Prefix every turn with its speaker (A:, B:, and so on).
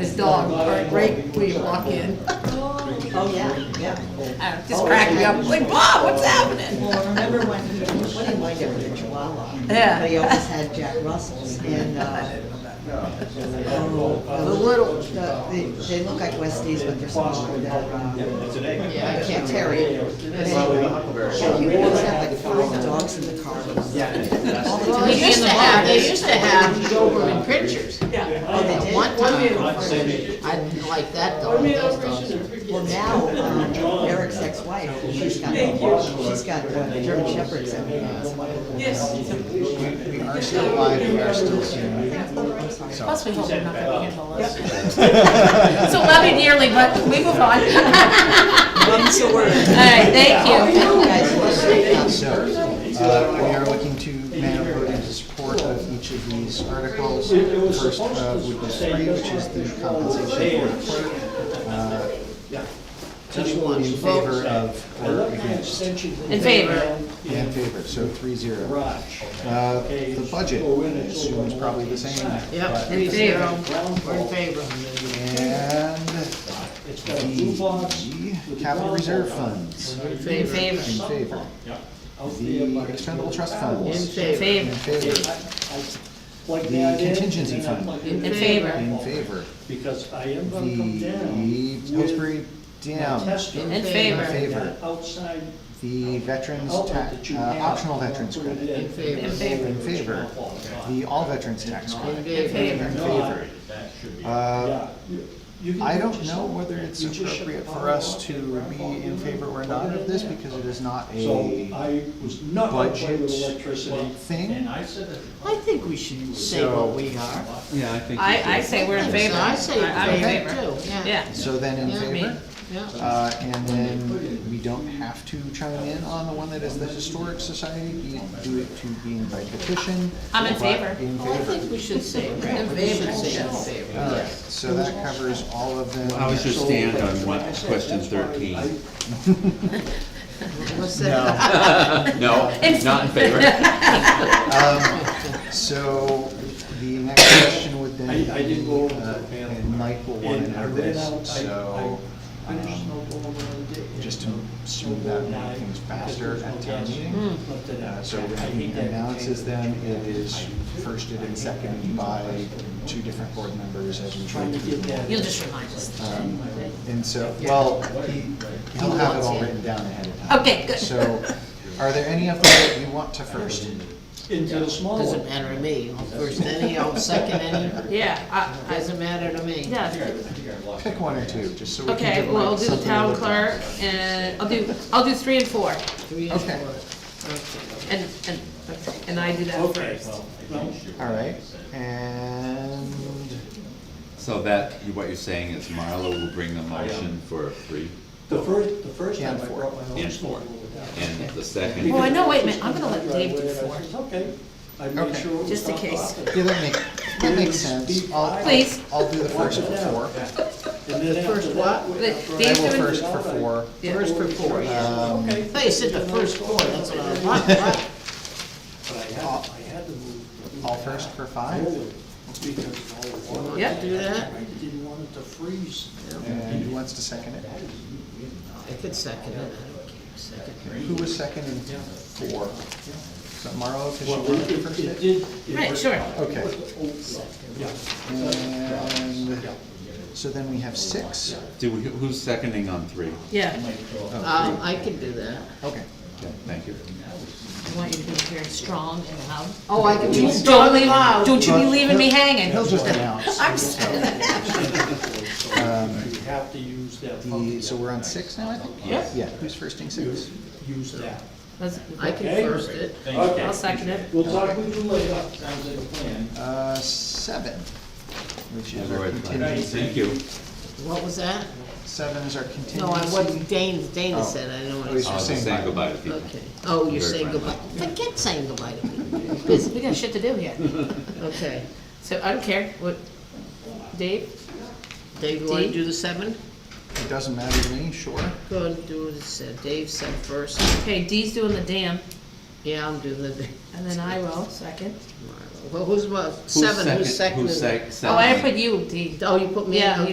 A: his dog, right, right where you walk in.
B: Oh, yeah, yeah.
A: I was Just cracking up, like, Bob, what's happening?
B: Well, I remember when he, what did he wind up with a chihuahua?
A: Yeah.
B: But he always had Jack Russells and, uh, oh, the little, the- the- they look like Westies, but they're smaller, they're, uh,
C: It's an egg.
B: I can't terrier. But
C: Probably the
B: anyway,
C: huckleberry.
B: Yeah, he would always have like five dogs in the car.
C: Yeah.
D: They used to have, they used to have Doberman pinchers.
B: Oh, they did?
D: One time,
C: I'd say
D: I didn't like that dog, those dogs.
B: Well, now, um, Eric's ex-wife, she's got, she's got uh, German Shepherds and, uh,
E: We are still live, we are still streaming.
D: Plus, we hope they're not gonna handle us.
A: So love you dearly, but we move on.
B: Mum's the word.
A: All right, thank you.
B: Guys, what's your thoughts?
E: So, uh, we are looking to man a vote in support of each of these articles. First, uh, would be three, which is the compensation for the clerk. Uh, Two in favor of or against.
A: In favor.
E: In favor, so three zero. Uh, the budget, I assume is probably the same.
D: Yep,
A: In favor.
D: we're in favor.
E: And the capital reserve funds.
D: In
A: In
D: favor.
A: favor.
E: In favor. The expendable trust funds.
D: In
A: In
D: favor.
E: In
A: favor.
E: favor. The contingency fund.
A: In favor.
E: In favor.
F: Because I am gonna come down
E: The Pillsbury Dam.
F: testing
A: In
E: In
A: favor.
E: favor.
F: outside
E: The veterans,
F: outlet that
E: tax,
F: you
E: uh,
F: have.
E: optional veterans credit.
F: In
D: favor. In
A: favor.
E: In favor. The all veterans tax
D: In
E: credit.
D: favor.
E: In favor. Uh, I don't know whether it's appropriate for us to be in favor or not of this because it is not
F: So
E: a
F: I was not gonna play with
E: budget
F: electricity.
E: thing.
D: I think we should say what we are.
G: Yeah, I think.
A: I, I say we're in favor.
D: I say
A: I- I'm
D: in favor too, yeah.
A: Yeah.
E: So then in
D: Yeah, me.
E: favor?
D: Yeah.
E: Uh, and then we don't have to chime in on the one that is the Historic Society, be, do it to being by petition.
A: I'm in
E: but
A: favor.
E: In
D: Well, I
E: favor.
D: think we should say, it, right?
A: In
D: We should
A: favor.
D: say in favor.
E: All right, so that covers all of them.
G: I was just stand on what, question thirteen.
D: What's that?
E: No,
G: No, not in favor.
E: um, so the next question would then
F: I- I didn't go
E: be,
F: over
E: uh,
F: that panel.
E: and Mike will want to
F: And I
E: know
F: read
E: this,
F: out, I-
E: so.
F: I- I'm just
E: um,
F: not going around it.
E: just to smooth out and make things faster at town meeting.
F: Hmm,
E: Uh, So when he announces them, it is firsted and seconded by two different board members as we try
F: Trying
E: to
F: to
E: do
F: get
E: them.
F: that.
D: You'll just remind us.
E: Um, And so, well, he, he'll have it all written down ahead of time.
A: Okay, good.
E: So, are there any of them that you want to first?
F: Into the small one.
D: Doesn't matter to me. I'll first any, I'll second any.
A: Yeah, I, I,
D: Doesn't matter to me.
A: yeah.
E: Pick one or two, just so we can.
A: Okay,
E: give
A: well, I'll
E: Mike
A: do the
E: something to
A: town
E: look at.
A: clerk, and I'll do, I'll do three and four,
D: Three to
E: Okay.
D: four. Okay.
A: and, and, and I do that first.
E: All right, and
G: So that, what you're saying is Marlo will bring the motion for three,
F: The first, the first time
E: And
F: I
E: four.
F: brought my own
G: And
F: snowblower
G: four.
F: down.
G: and the second,
A: Oh, I know, wait a minute, I'm gonna let Dave do four.
F: It's okay. I made
E: Okay.
F: sure. it was
A: Just in
F: not
A: case.
F: offered.
E: yeah, that makes, that makes sense. I'll-
A: Please.
E: I'll do the first four.
F: And then
D: first
F: after
D: what?
F: that, we-
A: The-
F: after
A: the-
F: I-
E: I
A: He's
E: will
A: doing-
E: first for four.
A: Yeah.
D: First for four, yeah.
E: Um,
F: Okay.
D: They said the first four, that's what I want, right?
F: But I had, I had to move.
E: All first for five?
F: forward Because of all the water.
A: Yep.
D: Do that.
F: I didn't want it to freeze.
E: And who wants to second it?
D: I could second it, I don't care, second.
E: Who was second and four? So Marlo, because
F: Well,
E: you wanted to
F: it,
E: first
F: it
E: it?
F: did. it
A: Right,
F: was-
A: sure.
E: Okay.
F: Yeah.
E: And, so then we have six?
G: do we, who's seconding on three?
A: Yeah,
D: Um, I can do that.
E: Okay.
G: Okay, Thank you.
A: I want you to be very strong and loud.
D: Oh, I can do
A: Don't leave, don't you be leaving me hanging.
E: He'll just announce.
A: I'm s-
F: You have to use that.
E: The, so we're on six now, I think?
A: Yes.
E: Yeah, who's firsting six?
F: Use that.
A: Let's-
D: I can
F: Okay.
D: first it.
A: I'll
F: Okay,
A: second it.
F: we'll talk with you later. Sounds like a plan.
E: Uh, seven, which is our contingency.
G: Thank you.
D: What was that?
E: Seven is our contingency.
D: No, I wasn't, Dana, Dana
E: Oh.
D: said, I don't
E: Oh,
D: want
E: he's
G: I
D: to.
G: was
E: saying
G: just
E: bye.
G: saying goodbye to people.
D: Okay. Oh, you're
G: Very
D: saying
G: friendly.
D: goodbye. Forget saying goodbye to me.
A: We got shit to do here,
D: Okay.
A: so I don't care, what, Dave?
D: Dave, you want to
A: Dee?
D: do the seven?
E: It doesn't matter to me, sure.
D: Go and do this, uh, Dave said first.
A: Okay, Dee's doing the dam,
D: Yeah, I'm doing the,
A: and then I will, second.
D: Marlo
A: Well, who's, well, seven, who's second?
G: Who's sec-
D: Oh, I
G: seconded?
D: put you, D.
A: Oh, you Oh, put me
D: Yeah,
A: in,